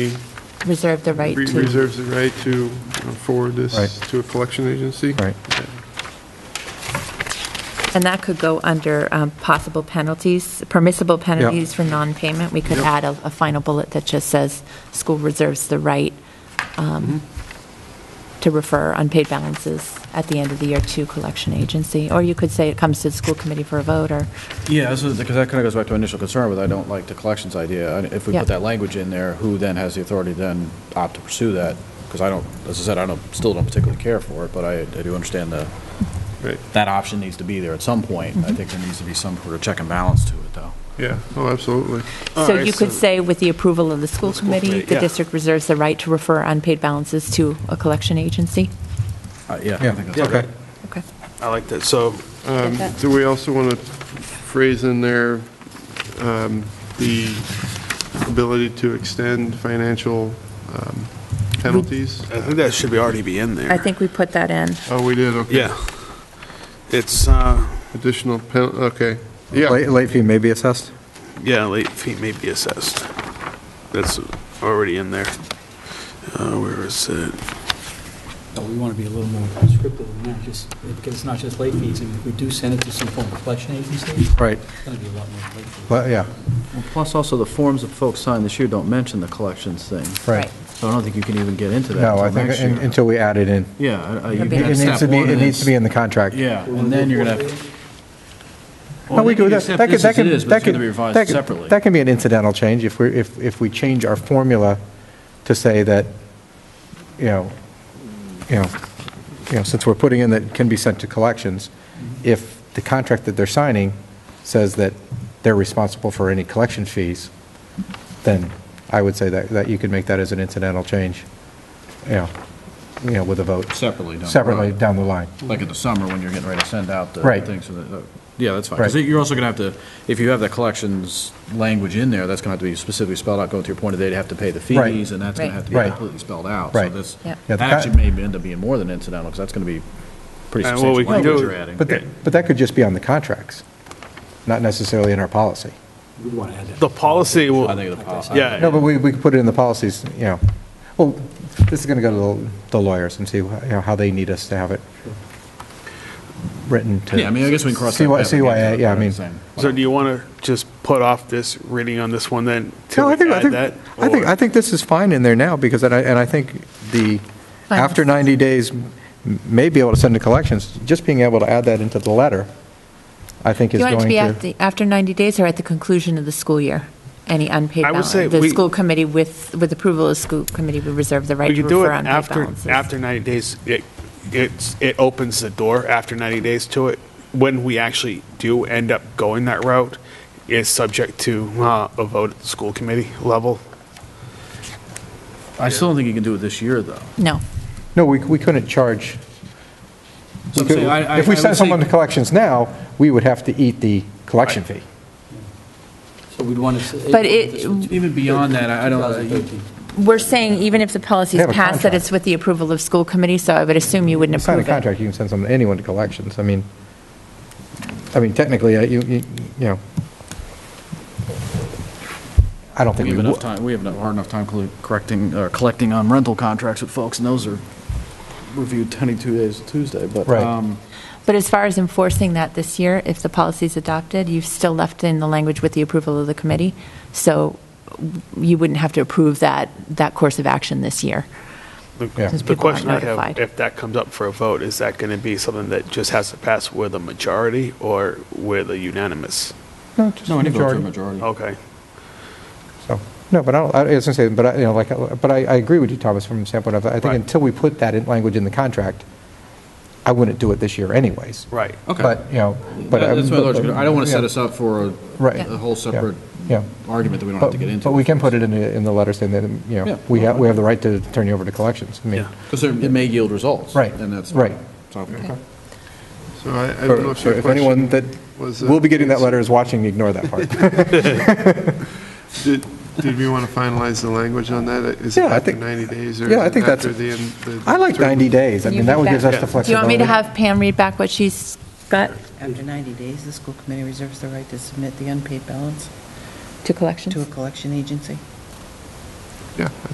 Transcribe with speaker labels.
Speaker 1: reserve the right
Speaker 2: Re-
Speaker 1: to.
Speaker 2: Reserves the right to uh, forward
Speaker 3: Right.
Speaker 2: this to a collection agency?
Speaker 3: Right.
Speaker 1: And that could go under um, possible penalties, permissible penalties for non-payment. We could
Speaker 2: Yep.
Speaker 1: add a, a final bullet that just says, school reserves the right um, to refer unpaid balances at the end of the year to collection agency. Or you could say it comes to the school committee for a vote, or,
Speaker 4: Yeah, this is, because that kind of goes back to initial concern with I don't like the collections idea. And If we
Speaker 1: Yeah.
Speaker 4: put that language in there, who then has the authority to then opt to pursue that? Because I don't, as I said, I don't, still don't particularly care for it, but I, I do understand the,
Speaker 2: Right,
Speaker 4: that option needs to be there at some point.
Speaker 3: Mm-hmm.
Speaker 4: I think there needs to be some sort of check and balance to it, though.
Speaker 2: yeah, oh, absolutely.
Speaker 1: so you could say, with the approval of the school committee,
Speaker 2: committee,
Speaker 1: the
Speaker 2: yeah.
Speaker 1: district reserves the right to refer unpaid balances to a collection agency?
Speaker 4: Uh, Yeah, I
Speaker 3: Yeah,
Speaker 4: think that's
Speaker 3: okay.
Speaker 4: okay.
Speaker 1: Okay.
Speaker 5: I like that. So
Speaker 2: Um,
Speaker 1: that.
Speaker 2: Do we also want to phrase in there um, the ability to extend financial um, penalties?
Speaker 5: I think that should be already be in there.
Speaker 1: I think we put that in.
Speaker 2: Oh, we did, okay.
Speaker 5: Yeah. It's, uh,
Speaker 2: Additional, pen- okay, yeah,
Speaker 3: Late late fee may be assessed?
Speaker 5: yeah, late fee may be assessed. That's already in there. Uh, Where is it?
Speaker 6: No, we want to be a little more prescriptive than that, just, because it's not just late fees. I mean, if we do send it to some form of collection agency, it's
Speaker 3: Right,
Speaker 6: going to be a lot more late fees.
Speaker 3: but, yeah,
Speaker 4: Plus also the forms that folks sign this year don't mention the collections thing.
Speaker 3: right.
Speaker 4: So I don't think you can even get into
Speaker 3: No, I think un- until we add it in.
Speaker 4: Yeah.
Speaker 1: It'll be-
Speaker 3: It needs to be, it needs to be in the contract.
Speaker 4: Yeah, and then you're going to.
Speaker 3: No, we could- that- that could- that
Speaker 4: This as
Speaker 3: could-
Speaker 4: it is, but
Speaker 3: that
Speaker 4: it's going to
Speaker 3: could-
Speaker 4: be
Speaker 3: that
Speaker 4: revised
Speaker 3: could-
Speaker 4: separately.
Speaker 3: That can be an incidental change if we're, if, if we change our formula to say that, you know, you know, you know, since we're putting in that it can be sent to collections, if the contract that they're signing says that they're responsible for any collection fees, then I would say that, that you could make that as an incidental change, you know, you know, with a vote,
Speaker 4: Separately. down the
Speaker 3: separately
Speaker 4: road.
Speaker 3: down the line.
Speaker 4: Like in the summer when you're getting ready to send out the
Speaker 3: Right.
Speaker 4: things. so that- uh, Yeah, that's fine. Because
Speaker 3: Right.
Speaker 4: you're also going to have to, if you have that collections language in there, that's going to have to be specifically spelled out, going to your point of they'd have to pay the
Speaker 3: Right.
Speaker 4: fees and that's going
Speaker 1: Right.
Speaker 4: to have to be
Speaker 3: Right.
Speaker 4: completely spelled out.
Speaker 3: Right.
Speaker 4: So this,
Speaker 1: Yeah.
Speaker 3: Yeah,
Speaker 4: that
Speaker 3: the
Speaker 4: actually
Speaker 3: co-
Speaker 4: may end up being more than incidental because that's going to be pretty
Speaker 2: Uh, well,
Speaker 4: substantial
Speaker 2: we can
Speaker 4: language
Speaker 2: do-
Speaker 4: you're adding.
Speaker 3: But, that- but that could just be on the contracts, not necessarily in our policy.
Speaker 6: We want to add that.
Speaker 5: The policy will,
Speaker 4: I think the policy.
Speaker 5: yeah.
Speaker 3: No, but we, we could put it in the policies, you know. Well, this is going to go to the lawyers and see, you know, how they need us to have it written to.
Speaker 4: Yeah, I mean, I guess we can cross that.
Speaker 3: CY
Speaker 4: path again,
Speaker 3: CYA, yeah, I
Speaker 4: but
Speaker 3: mean-
Speaker 4: same.
Speaker 5: So do you want to just put off this reading on this one then? till
Speaker 3: No, I
Speaker 5: we
Speaker 3: think, I
Speaker 5: add
Speaker 3: think,
Speaker 5: that?
Speaker 3: I think,
Speaker 5: Or-
Speaker 3: I think this is fine in there now, because, and I, and I think the, after 90 days, m- may be able to send to collections, just being able to add that into the letter, I think
Speaker 1: Do
Speaker 3: is
Speaker 1: you want it to
Speaker 3: going
Speaker 1: be
Speaker 3: to.
Speaker 1: at the- after 90 days or at the conclusion of the school year? Any unpaid
Speaker 5: I would
Speaker 1: balance?
Speaker 5: say
Speaker 1: The
Speaker 5: we-
Speaker 1: school committee with, with approval of school committee would reserve the right
Speaker 5: We
Speaker 1: to
Speaker 5: could do it
Speaker 1: refer unpaid
Speaker 5: after,
Speaker 1: balances.
Speaker 5: after 90 days. It, it's, it opens the door after 90 days to it. When we actually do end up going that route is subject to uh, a vote at the school committee level.
Speaker 4: I still don't think you can do it this year, though.
Speaker 1: No.
Speaker 3: No, we, we couldn't charge.
Speaker 4: So I'm saying, I- I-
Speaker 3: If we
Speaker 4: I would
Speaker 3: send
Speaker 4: say-
Speaker 3: someone to collections now, we would have to eat the collection fee.
Speaker 6: So we'd want to.
Speaker 1: But it-
Speaker 4: Even beyond that, I I don't, uh, you-
Speaker 6: 2013.
Speaker 1: We're saying even if the policy
Speaker 3: They
Speaker 1: is
Speaker 3: have a
Speaker 1: passed, that
Speaker 3: contract.
Speaker 1: it's with the approval of school committee, so I would assume you wouldn't
Speaker 3: sign a
Speaker 1: approve it.
Speaker 3: contract, you can send someone, anyone to collections. I mean, I mean, technically, uh, you, you you know, I don't think we
Speaker 4: we have enough
Speaker 3: would.
Speaker 4: time, we have enough, hard enough time col- correcting, or collecting on rental contracts with folks, and those are reviewed 22 days Tuesday, but.
Speaker 3: Right.
Speaker 4: um,
Speaker 1: But as far as enforcing that this year, if the policy is adopted, you've still left in the language with the approval of the committee, so you wouldn't have to approve that, that course of action this year.
Speaker 5: The-
Speaker 3: Yeah.
Speaker 1: Since
Speaker 5: The
Speaker 1: people aren't
Speaker 5: question I have,
Speaker 1: notified.
Speaker 5: if that comes up for a vote, is that going to be something that just has to pass with a majority or with a unanimous?
Speaker 4: No, I need to go to a majority.
Speaker 5: Okay.
Speaker 3: So, No, but I don't, I was gonna say, but I, you know, like, uh, but I, I agree with you, Thomas, from the standpoint of, I think
Speaker 5: Right.
Speaker 3: until we put that in language in the contract, I wouldn't do it this year anyways.
Speaker 5: Right.
Speaker 4: Okay.
Speaker 3: But, you know,
Speaker 4: That-
Speaker 3: but.
Speaker 4: That's my
Speaker 3: but-
Speaker 4: large, I don't want to
Speaker 3: yeah,
Speaker 4: set us up for a-
Speaker 3: Right.
Speaker 4: a whole separate
Speaker 3: Yeah.
Speaker 4: argument that we don't have
Speaker 3: But
Speaker 4: to get into.
Speaker 3: but we can put it in the, in the letter saying that, you
Speaker 4: Yeah.
Speaker 3: know, we have, we have the right to turn you over to collections. I mean,
Speaker 5: Yeah.
Speaker 4: Because it may yield results.
Speaker 3: Right,
Speaker 4: And that's.
Speaker 3: right.
Speaker 4: So-
Speaker 2: so I I
Speaker 3: Or-
Speaker 2: don't know if
Speaker 3: or
Speaker 2: your
Speaker 3: If anyone
Speaker 2: question
Speaker 3: that
Speaker 2: was. uh,
Speaker 3: will be getting that letter is watching, ignore that part.
Speaker 2: Did did we want to finalize the language on that? Is it
Speaker 3: Yeah, I
Speaker 2: after
Speaker 3: think-
Speaker 2: 90 days or is
Speaker 3: yeah, I
Speaker 2: it
Speaker 3: think that's-
Speaker 2: after the end? the-
Speaker 3: I like
Speaker 2: the term?
Speaker 3: 90 days. I
Speaker 1: Can
Speaker 3: mean,
Speaker 1: you
Speaker 3: that
Speaker 1: read
Speaker 3: would give us
Speaker 1: back?
Speaker 3: the
Speaker 1: Do you want
Speaker 3: flexibility.
Speaker 1: me to have Pam read back what she's got
Speaker 7: After 90 days, the school committee reserves the right to submit the unpaid balance
Speaker 1: to collections?
Speaker 7: to a collection agency.
Speaker 2: Yeah.